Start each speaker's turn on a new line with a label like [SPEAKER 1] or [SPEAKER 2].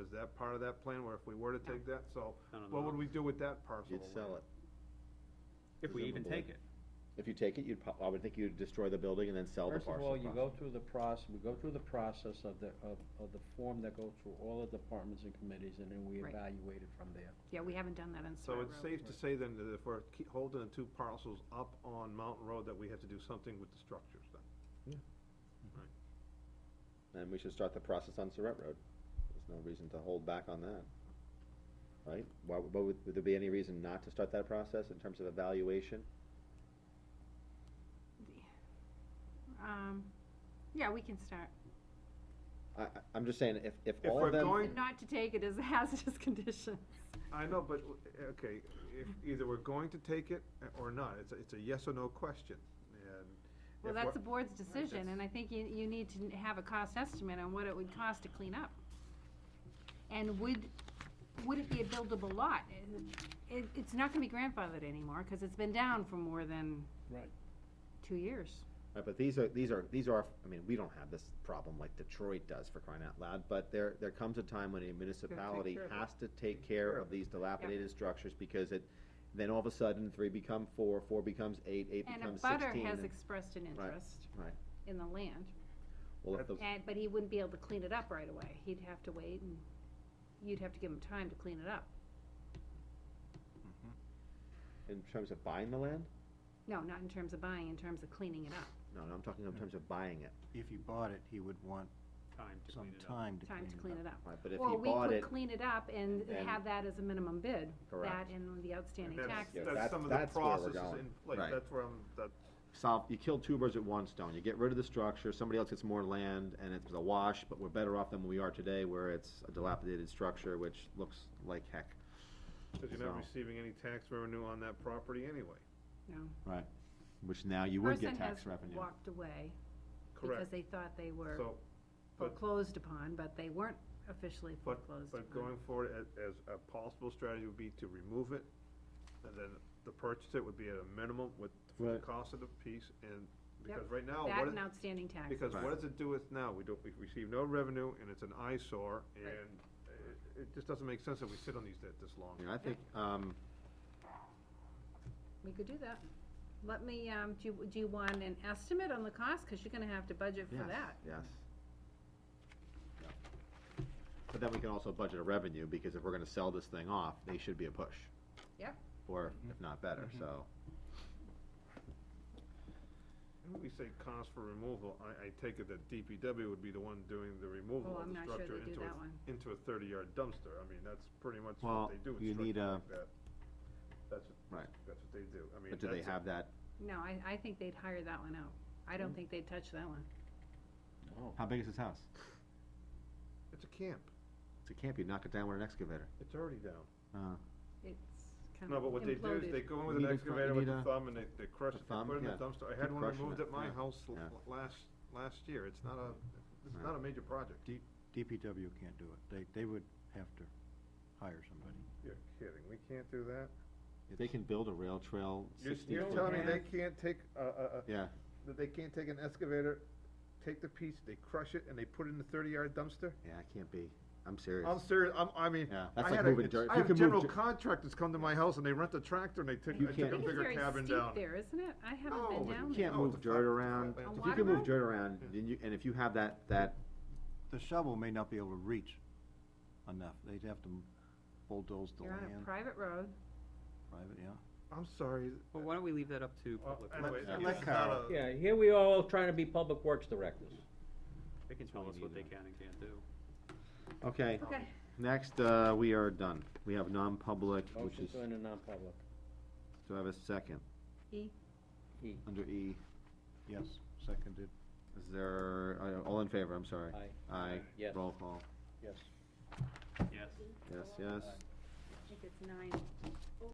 [SPEAKER 1] is that part of that plan, where if we were to take that, so,
[SPEAKER 2] I don't
[SPEAKER 1] what would
[SPEAKER 2] know.
[SPEAKER 1] we do with that parcel?
[SPEAKER 3] You'd sell it.
[SPEAKER 2] If we even take it.
[SPEAKER 3] If you take it, you'd, prob- I would think you'd destroy the building and then sell the
[SPEAKER 4] First
[SPEAKER 3] parcel.
[SPEAKER 4] of all, you
[SPEAKER 3] across.
[SPEAKER 4] go through the process, we go through the process of the, of, of the form that goes through all the departments and committees, and then we
[SPEAKER 5] Right.
[SPEAKER 4] evaluate it from there.
[SPEAKER 5] Yeah, we haven't done that on
[SPEAKER 1] So
[SPEAKER 5] Square
[SPEAKER 1] it's safe to say then that if we're keep holding the two parcels up on Mountain Road, that we have to do something with the structures then?
[SPEAKER 3] And we should start the process on Surratt Road. There's no reason to hold back on that. Right? Why, would- why would, would there be any reason not to start that process in terms of evaluation?
[SPEAKER 5] Um, yeah, we can start.
[SPEAKER 3] I, I, I'm just saying, if, if
[SPEAKER 1] If
[SPEAKER 3] all
[SPEAKER 1] we're
[SPEAKER 3] of them.
[SPEAKER 1] going-
[SPEAKER 5] And Not to take it as a hazardous condition.
[SPEAKER 1] I know, but, okay, if, either we're going to take it or not, it's, a- it's a yes or no question, and.
[SPEAKER 5] Well,
[SPEAKER 1] if
[SPEAKER 5] that's the
[SPEAKER 1] we're-
[SPEAKER 5] board's decision, and I think you, you need to have a cost estimate on what it would cost to clean up. And would, would it be a buildable lot? It, it's not gonna be grandfathered anymore, cause it's been down for more than
[SPEAKER 4] Right.
[SPEAKER 5] two years.
[SPEAKER 3] Right, but these are, these are, these are, I mean, we don't have this problem like Detroit does for crying out loud, but there, there comes a time when a municipality
[SPEAKER 1] care of it.
[SPEAKER 3] has to take care
[SPEAKER 1] care
[SPEAKER 3] of these dilapidated structures because it, then all of a sudden, three become four, four becomes eight, eight
[SPEAKER 5] And a
[SPEAKER 3] becomes sixteen.
[SPEAKER 5] butter has
[SPEAKER 3] and-
[SPEAKER 5] expressed an
[SPEAKER 3] Right.
[SPEAKER 5] interest
[SPEAKER 3] Right,
[SPEAKER 5] in the land,
[SPEAKER 3] well, if the,
[SPEAKER 5] and, but he wouldn't be able to clean it up right away. He'd have to wait, and you'd have to give him time to clean it up.
[SPEAKER 3] in terms of buying the land?
[SPEAKER 5] No, not in terms of buying, in terms of cleaning it up.
[SPEAKER 3] No, no, I'm talking in terms of buying it,
[SPEAKER 6] If he bought it, he would want
[SPEAKER 2] Time to
[SPEAKER 6] some
[SPEAKER 2] clean it up.
[SPEAKER 6] time to
[SPEAKER 5] time to clean it up.
[SPEAKER 3] right, but if he bought
[SPEAKER 5] Or we
[SPEAKER 3] it,
[SPEAKER 5] could clean it up and
[SPEAKER 3] then-
[SPEAKER 5] have that as a minimum bid, that
[SPEAKER 3] Correct.
[SPEAKER 5] and the outstanding
[SPEAKER 1] That's-
[SPEAKER 5] taxes.
[SPEAKER 3] Yeah,
[SPEAKER 1] That's
[SPEAKER 3] that's-
[SPEAKER 1] some of the
[SPEAKER 3] that's where we're
[SPEAKER 1] processes
[SPEAKER 3] going.
[SPEAKER 1] in place,
[SPEAKER 3] Right.
[SPEAKER 1] that's where I'm, that,
[SPEAKER 3] solve, you kill two birds with one stone, you get rid of the structure, somebody else gets more land, and it's a wash, but we're better off than we are today, where it's a dilapidated structure which looks like heck.
[SPEAKER 1] cause you're not
[SPEAKER 3] So-
[SPEAKER 1] receiving any tax revenue on that property anyway,
[SPEAKER 5] No.
[SPEAKER 3] Right, which now you would get tax
[SPEAKER 5] Person
[SPEAKER 3] revenue.
[SPEAKER 5] has walked away because
[SPEAKER 1] correct?
[SPEAKER 5] they thought they were
[SPEAKER 1] So, but-
[SPEAKER 5] foreclosed upon, but they weren't officially
[SPEAKER 1] but,
[SPEAKER 5] foreclosed upon.
[SPEAKER 1] but going forward, as, as a possible strategy would be to remove it, and then the purchase it would be at a minimum with, for the
[SPEAKER 3] Right.
[SPEAKER 1] cost of the piece, and,
[SPEAKER 5] Yep.
[SPEAKER 1] because right now,
[SPEAKER 5] That
[SPEAKER 1] what, it-
[SPEAKER 5] and outstanding taxes.
[SPEAKER 1] Because
[SPEAKER 3] Right.
[SPEAKER 1] what does it do with now? We don't, we receive no revenue, and it's an eyesore, and
[SPEAKER 5] Right.
[SPEAKER 1] it, it just doesn't make sense that we sit on these that this long.
[SPEAKER 3] Yeah, I think, um,
[SPEAKER 5] We could do that. Let me, um, do you, do you want an estimate on the cost? Cause you're gonna have to budget
[SPEAKER 3] yes,
[SPEAKER 5] for that.
[SPEAKER 3] yes. Yeah. But then we can also budget a revenue, because if we're gonna sell this thing off, they should be a push.
[SPEAKER 5] Yep.
[SPEAKER 3] Or
[SPEAKER 6] Mm-hmm.
[SPEAKER 3] if not better, so,
[SPEAKER 1] When we say cost for removal, I, I take it that DPW would be the one doing the removal
[SPEAKER 5] Oh,
[SPEAKER 1] of
[SPEAKER 5] I'm
[SPEAKER 1] the
[SPEAKER 5] not sure
[SPEAKER 1] structure
[SPEAKER 5] they do
[SPEAKER 1] into a,
[SPEAKER 5] that one.
[SPEAKER 1] into a thirty-yard dumpster. I mean, that's pretty much what
[SPEAKER 3] Well,
[SPEAKER 1] they do
[SPEAKER 3] you
[SPEAKER 1] in
[SPEAKER 3] need
[SPEAKER 1] structures like
[SPEAKER 3] a-
[SPEAKER 1] that. That's, what-
[SPEAKER 3] Right.
[SPEAKER 1] that's what they do. I mean,
[SPEAKER 3] but do they
[SPEAKER 1] that's a-
[SPEAKER 3] have that,
[SPEAKER 5] No, I, I think they'd hire that one out. I
[SPEAKER 1] Hmm.
[SPEAKER 5] don't think they'd touch that one.
[SPEAKER 3] how big is this house?
[SPEAKER 1] It's a camp.
[SPEAKER 3] It's a camp, you knock it down with an excavator.
[SPEAKER 1] It's already down.
[SPEAKER 3] Uh,
[SPEAKER 5] It's kind
[SPEAKER 1] No,
[SPEAKER 5] of imploded.
[SPEAKER 1] but what they do is they go in with
[SPEAKER 3] You
[SPEAKER 1] an
[SPEAKER 3] need a thru-
[SPEAKER 1] excavator
[SPEAKER 3] you
[SPEAKER 1] with
[SPEAKER 3] need
[SPEAKER 1] a
[SPEAKER 3] a-
[SPEAKER 1] thumb and they, they crush
[SPEAKER 3] a
[SPEAKER 1] it, they
[SPEAKER 3] thumb,
[SPEAKER 1] put it in the
[SPEAKER 3] yeah.
[SPEAKER 1] dumpster. I
[SPEAKER 3] Keep
[SPEAKER 1] had one
[SPEAKER 3] crushing
[SPEAKER 1] removed
[SPEAKER 3] it,
[SPEAKER 1] at my
[SPEAKER 3] yeah,
[SPEAKER 1] house l-
[SPEAKER 3] yeah.
[SPEAKER 1] l- last, last year. It's not a, it's
[SPEAKER 3] Yeah.
[SPEAKER 1] not a major project.
[SPEAKER 6] D- DPW can't do it. They, they would have to hire somebody.
[SPEAKER 1] You're kidding. We can't do that?
[SPEAKER 3] They can build a rail trail
[SPEAKER 1] You're,
[SPEAKER 3] sixty
[SPEAKER 1] you're
[SPEAKER 3] foot
[SPEAKER 1] telling me
[SPEAKER 3] long.
[SPEAKER 1] they can't take a, a, a,
[SPEAKER 3] Yeah,
[SPEAKER 1] that they can't take an excavator, take the piece, they crush it, and they put it in the thirty-yard dumpster?
[SPEAKER 3] yeah, I can't be, I'm serious.
[SPEAKER 1] I'm serious, I'm, I mean,
[SPEAKER 3] Yeah, that's
[SPEAKER 1] I
[SPEAKER 3] like
[SPEAKER 1] had a,
[SPEAKER 3] moving dirt.
[SPEAKER 1] I
[SPEAKER 3] You
[SPEAKER 1] have
[SPEAKER 3] can move
[SPEAKER 1] general
[SPEAKER 3] di-
[SPEAKER 1] contractors come to my house and they rent a tractor and they take,
[SPEAKER 3] You
[SPEAKER 1] I
[SPEAKER 3] can't-
[SPEAKER 1] take a
[SPEAKER 3] I think
[SPEAKER 5] it's
[SPEAKER 1] bigger
[SPEAKER 5] very
[SPEAKER 1] cabin
[SPEAKER 5] steep
[SPEAKER 1] down.
[SPEAKER 5] There, isn't it? I haven't
[SPEAKER 1] No,
[SPEAKER 5] been
[SPEAKER 1] but
[SPEAKER 5] down
[SPEAKER 3] You
[SPEAKER 5] there.
[SPEAKER 3] can't
[SPEAKER 1] No, it's
[SPEAKER 3] move
[SPEAKER 1] a flat-
[SPEAKER 3] dirt around,
[SPEAKER 1] it's a flat
[SPEAKER 5] land.
[SPEAKER 3] if
[SPEAKER 5] A
[SPEAKER 3] you can move
[SPEAKER 5] water
[SPEAKER 3] dirt around, then you, and if you have that, that,
[SPEAKER 6] The shovel may not be able to reach enough. They'd have to bulldoze the
[SPEAKER 5] You're on a
[SPEAKER 6] land,
[SPEAKER 5] private road.
[SPEAKER 6] private, yeah.
[SPEAKER 1] I'm sorry.
[SPEAKER 2] Well, why don't we leave that up to
[SPEAKER 1] Well,
[SPEAKER 2] public?
[SPEAKER 1] anyway,
[SPEAKER 3] Yeah.
[SPEAKER 1] it's
[SPEAKER 3] Let
[SPEAKER 1] not
[SPEAKER 3] Carol-
[SPEAKER 1] a-
[SPEAKER 4] Oh. Yeah, here we are all trying to be public works directors.
[SPEAKER 2] They can tell us what they
[SPEAKER 3] Probably
[SPEAKER 2] can and can't do.
[SPEAKER 3] okay.
[SPEAKER 5] Okay.
[SPEAKER 3] Next, uh, we are done, we have non-public, which
[SPEAKER 4] Motion
[SPEAKER 3] is,
[SPEAKER 4] to enter non-public.
[SPEAKER 3] do I have a second?
[SPEAKER 5] E.
[SPEAKER 4] E.
[SPEAKER 3] Under E,
[SPEAKER 6] Yes, seconded,
[SPEAKER 3] is there, uh, all in favor, I'm sorry.
[SPEAKER 4] Aye.
[SPEAKER 3] Aye,
[SPEAKER 4] Yes.
[SPEAKER 3] roll call,
[SPEAKER 6] yes.
[SPEAKER 2] Yes.
[SPEAKER 3] yes, yes.
[SPEAKER 5] I think it's nine.